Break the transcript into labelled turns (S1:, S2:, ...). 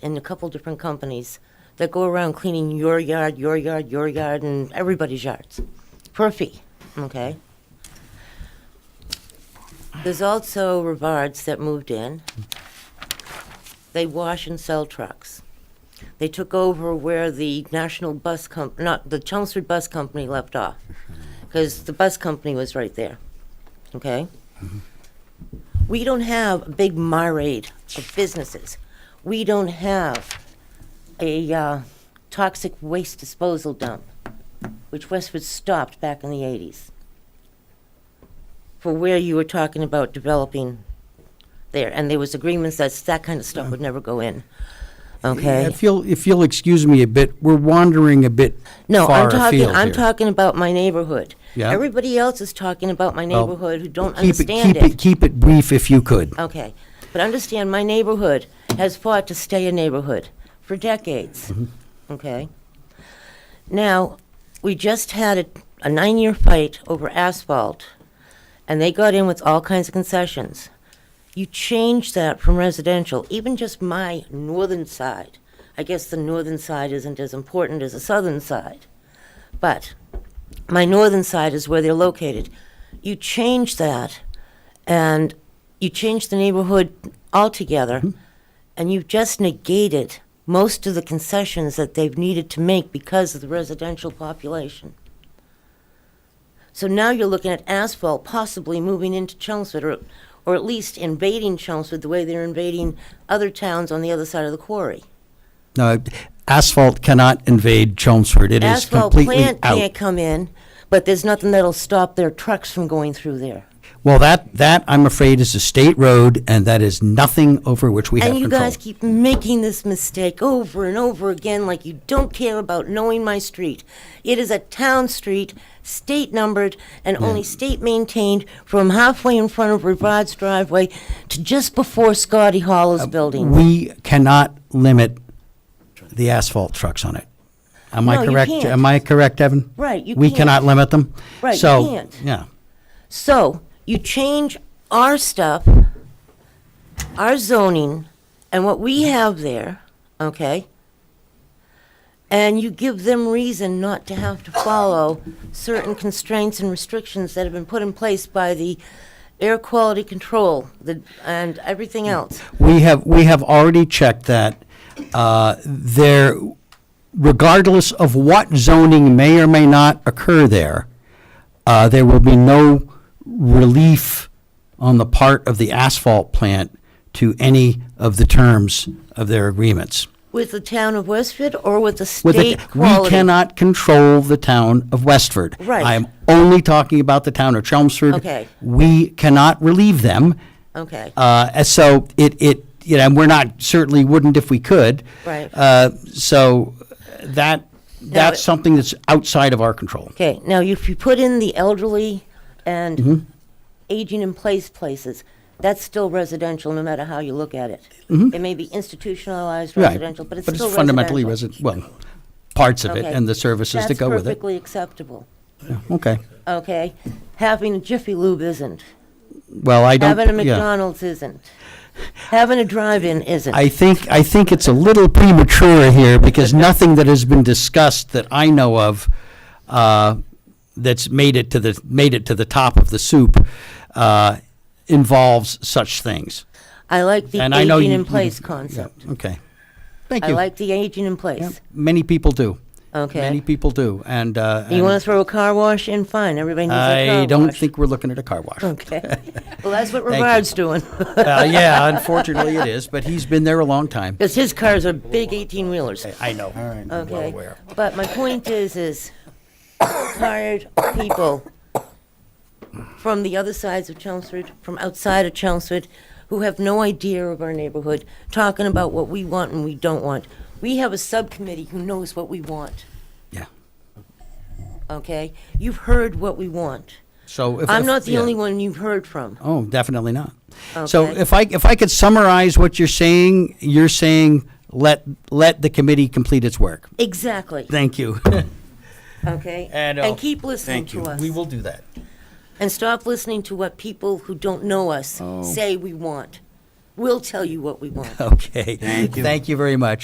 S1: and a couple different companies that go around cleaning your yard, your yard, your yard, and everybody's yards for a fee. Okay. There's also Rivards that moved in. They wash and sell trucks. They took over where the National Bus Com- not the Chelmsford Bus Company left off, because the bus company was right there. Okay. We don't have a big myriad of businesses. We don't have a uh, toxic waste disposal dump, which Westwood stopped back in the 80s for where you were talking about developing there. And there was agreements that that kind of stuff would never go in. Okay?
S2: If you'll, if you'll excuse me a bit, we're wandering a bit
S1: No,
S2: far
S1: I'm talking,
S2: afield
S1: I'm
S2: here.
S1: talking about my neighborhood.
S2: Yeah.
S1: Everybody else is talking about my
S2: Well,
S1: neighborhood who don't
S2: keep it-
S1: understand
S2: Keep it, keep it brief if you could.
S1: Okay, but understand, my neighborhood has fought to stay a neighborhood for decades, okay? Now, we just had a, a nine-year fight over asphalt, and they got in with all kinds of concessions. You change that from residential, even just my northern side. I guess the northern side isn't as important as the southern side, but my northern side is where they're located. You change that, and you change the neighborhood altogether,
S2: Mm-hmm.
S1: and you've just negated most of the concessions that they've needed to make because of the residential population. So now you're looking at asphalt possibly moving into Chelmsford, or, or at least invading Chelmsford the way they're invading other towns on the other side of the quarry.
S2: No, asphalt cannot invade Chelmsford. It is
S1: asphalt
S2: completely
S1: plant can't
S2: out.
S1: come in, but there's nothing that'll stop their trucks from going through there.
S2: Well, that, that, I'm afraid, is a state road, and that is nothing over which we have
S1: And you
S2: control.
S1: guys keep making this mistake over and over again, like you don't care about knowing my street. It is a town street, state numbered, and only state maintained from halfway in front of Rivard's driveway to just before Scotty
S2: Uh,
S1: Hollow's building.
S2: We cannot limit the asphalt trucks on it. Am
S1: No,
S2: I
S1: you
S2: correct?
S1: can't.
S2: Am I correct, Evan?
S1: Right, you
S2: We
S1: can't.
S2: cannot limit them?
S1: Right, you
S2: So,
S1: can't.
S2: Yeah.
S1: So you change our stuff, our zoning, and what we have there, okay? And you give them reason not to have to follow certain constraints and restrictions that have been put in place by the air quality control the, and everything else.
S2: We have, we have already checked that. uh, There, regardless of what zoning may or may not occur there, uh, there will be no relief on the part of the asphalt plant to any of the terms of their agreements.
S1: With the town of Westford or with the
S2: With the-
S1: state quality?
S2: We cannot control the town of Westford.
S1: Right.
S2: I am only talking about the town of Chelmsford.
S1: Okay.
S2: We cannot relieve them.
S1: Okay.
S2: Uh, and so it, it, you know, and we're not, certainly wouldn't if we could.
S1: Right.
S2: Uh, so that, that's
S1: it-
S2: something that's outside of our control.
S1: Okay, now if you put in the elderly
S2: Mm-hmm.
S1: and aging in place places, that's still residential, no matter how you look at it. It may be institutionalized
S2: Mm-hmm. Right.
S1: residential, but it's still residential.
S2: fundamentally residential. Well, parts of it
S1: Okay.
S2: and the services that go with
S1: That's
S2: it.
S1: perfectly acceptable,
S2: Okay.
S1: okay? Having a Jiffy Lube isn't.
S2: Well, I don't,
S1: Having a
S2: yeah.
S1: McDonald's isn't. Having a drive-in isn't.
S2: I think, I think it's a little premature here, because nothing that has been discussed that I know of uh, that's made it to the, made it to the top of the soup uh, involves such things.
S1: I like the
S2: And I know
S1: aging
S2: you-
S1: in
S2: you-
S1: place
S2: yeah,
S1: concept.
S2: Okay. Thank
S1: I
S2: you.
S1: like the aging in place,
S2: Many people do.
S1: okay?
S2: Many people do, and. uh,
S1: You want
S2: and
S1: to throw a car wash in, fine, everybody needs a car wash.
S2: I don't think we're looking at a car wash. Uh,
S1: Okay. Well, that's what
S2: you.
S1: Rivard's doing.
S2: Uh, Yeah, unfortunately it is, but he's been there a long time.
S1: Because his cars are big eighteen-wheelers.
S2: I know. All right.
S1: Okay. But my point is, is tired people from the other sides of Chelmsford, from outside of Chelmsford, who have no idea of our neighborhood, talking about what we want and we don't want. We have a subcommittee who knows what we want,
S2: Yeah.
S1: okay? You've heard what we want.
S2: So if.
S1: I'm
S2: if-
S1: not the
S2: yeah.
S1: only one you've heard from.
S2: Oh, definitely not. So
S1: Okay.
S2: if I, if I could summarize what you're saying, you're saying let, let the committee complete its work.
S1: Exactly,
S2: Thank you.
S1: okay?
S2: And, uh,
S1: And keep listening to us.
S2: We will do that.
S1: And stop listening to what people who don't know us say we want.
S3: We'll tell you what we want.
S2: Okay.
S1: Thank you.
S2: Thank you very much.